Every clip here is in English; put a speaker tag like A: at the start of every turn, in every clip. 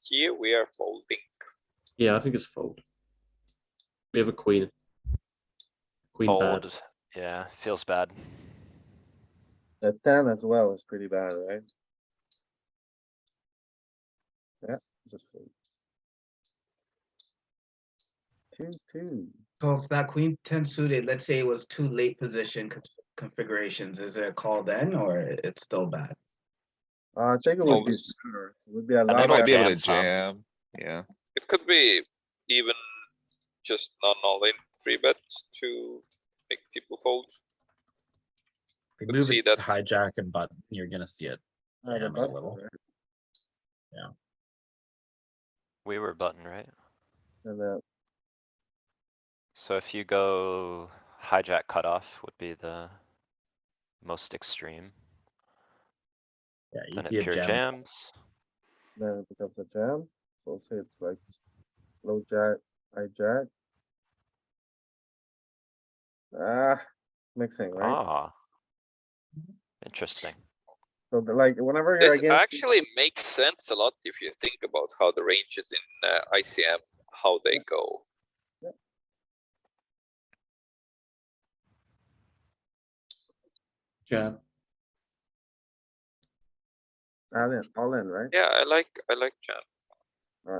A: here we are folding.
B: Yeah, I think it's fold. We have a queen. Queen bad.
C: Fold, yeah, feels bad.
D: The ten as well is pretty bad, right? Yeah, just fold. Two, two.
E: So if that queen ten suited, let's say it was two late position con- configurations, is it a call then or it's still bad?
D: Uh, I think it
F: Oh,
D: would be,
F: it's-
D: better. It would be
C: I
D: a
F: I
D: lot.
F: might be
D: better.
F: able to
C: Jam, Tom.
F: jam, yeah.
A: It could be even just non all in three bets to make people fold.
G: We
A: Could
G: move
A: see
G: it to
A: that.
G: hijack and button, you're gonna see it.
D: Yeah, the
G: jam it a
D: button,
G: little.
D: right?
C: We were button, right?
D: And then
C: So if you go hijack cutoff would be the most extreme,
G: Yeah, you
C: then
G: see
C: it
G: it
C: pure
G: jam.
C: jams.
D: Then it becomes a jam, so say it's like low jack, high jack. Ah, mixing, right?
C: Ah. Interesting.
D: So the- like whenever you're
A: This
D: against,
A: actually makes sense a lot if you think about how the ranges in uh, ICM, how they go.
B: Yeah.
D: all in, all in, right?
A: Yeah, I like, I like jam.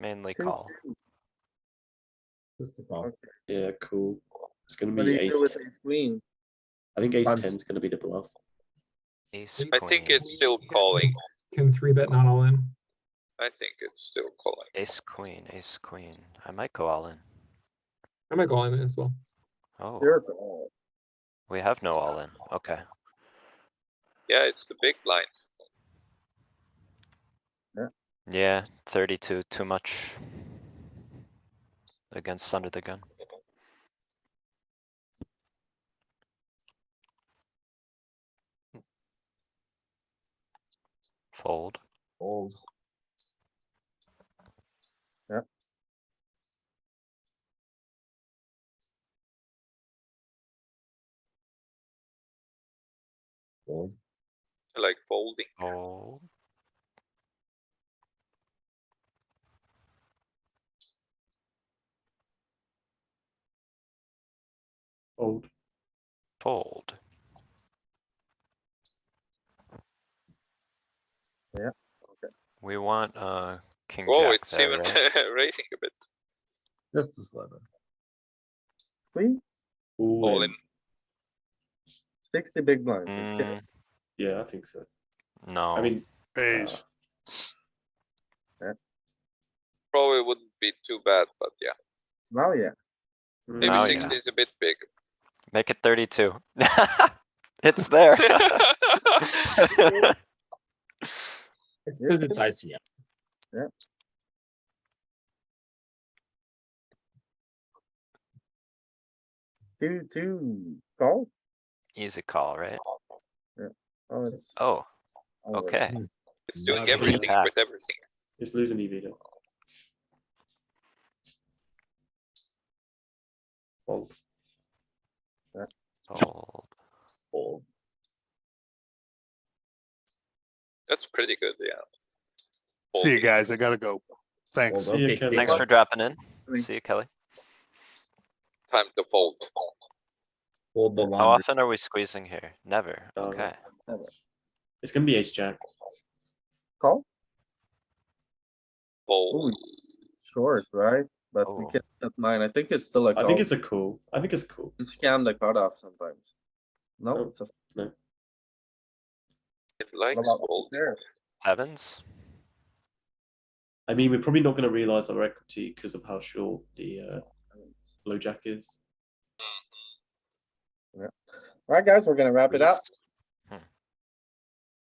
C: Mainly
D: Two,
C: call.
G: Just a call.
B: Yeah, cool. It's gonna
D: What do
B: be
D: you
B: ace.
D: do with
B: ten.
D: ace queen?
B: I think ace
G: Buns.
B: ten is gonna be the bluff.
C: Ace,
A: I think
C: queen,
A: it's still calling.
H: Can three bet not all in?
A: I think it's still calling.
C: Ace, queen, ace, queen. I might go all in.
H: I might go all in as well.
C: Oh,
D: You're all,
C: we have no all in. Okay.
A: Yeah, it's the big blind.
C: Yeah, thirty-two, too much. Against under the gun. Fold.
G: Fold. Fold.
A: I like folding.
C: Oh.
B: Fold.
C: Fold.
D: Yeah, okay.
C: We want, uh, king
A: Whoa,
C: jack
A: it's even
C: there, right?
A: raising a bit.
G: Just a sliver.
D: queen,
B: All,
A: All
B: in.
A: in.
D: sixty big blinds, you kidding?
C: Mm,
B: Yeah, I think so. I
C: no,
B: mean, uh,
A: Probably wouldn't be too bad, but yeah,
D: now, Oh, yeah,
A: maybe
B: uh,
C: Now, yeah.
A: sixteen is a bit big.
C: make it thirty-two. It's there.
G: It's cause it's ICM.
D: two, two, call?
C: Easy call, right?
D: Oh, it's.
C: Oh,
D: all in.
C: okay.
A: It's doing
G: Lovely
A: everything
C: pack.
A: with everything.
B: it's losing EV though. Fold.
C: Fold.
G: Fold.
A: That's pretty good, yeah.
F: See you
A: Folding.
F: guys, I gotta go. Thanks.
G: Fold, okay,
B: Kevin.
G: see
C: Thanks
G: ya.
C: for dropping in.
D: Thank-
C: See you, Kelly.
A: Time to fold.
G: Fold the
C: How
G: laundry.
C: often are we squeezing here? Never.
B: Uh,
C: Okay.
B: It's gonna be ace jack.
D: Call?
A: Fold.
D: Short, right? But we
C: Oh.
D: can at nine, I think it's still a
B: I
D: call.
B: think it's a cool. I think it's cool.
D: You Scam the cutoff sometimes. No,
B: Oh.
D: it's a.
A: It likes
D: Well,
A: fold.
D: there.
C: Sevens?
B: I mean, we're probably not gonna realize our equity because of how short the uh, low jack is.
D: Alright, guys, we're gonna wrap it
C: Squeeze.
D: up.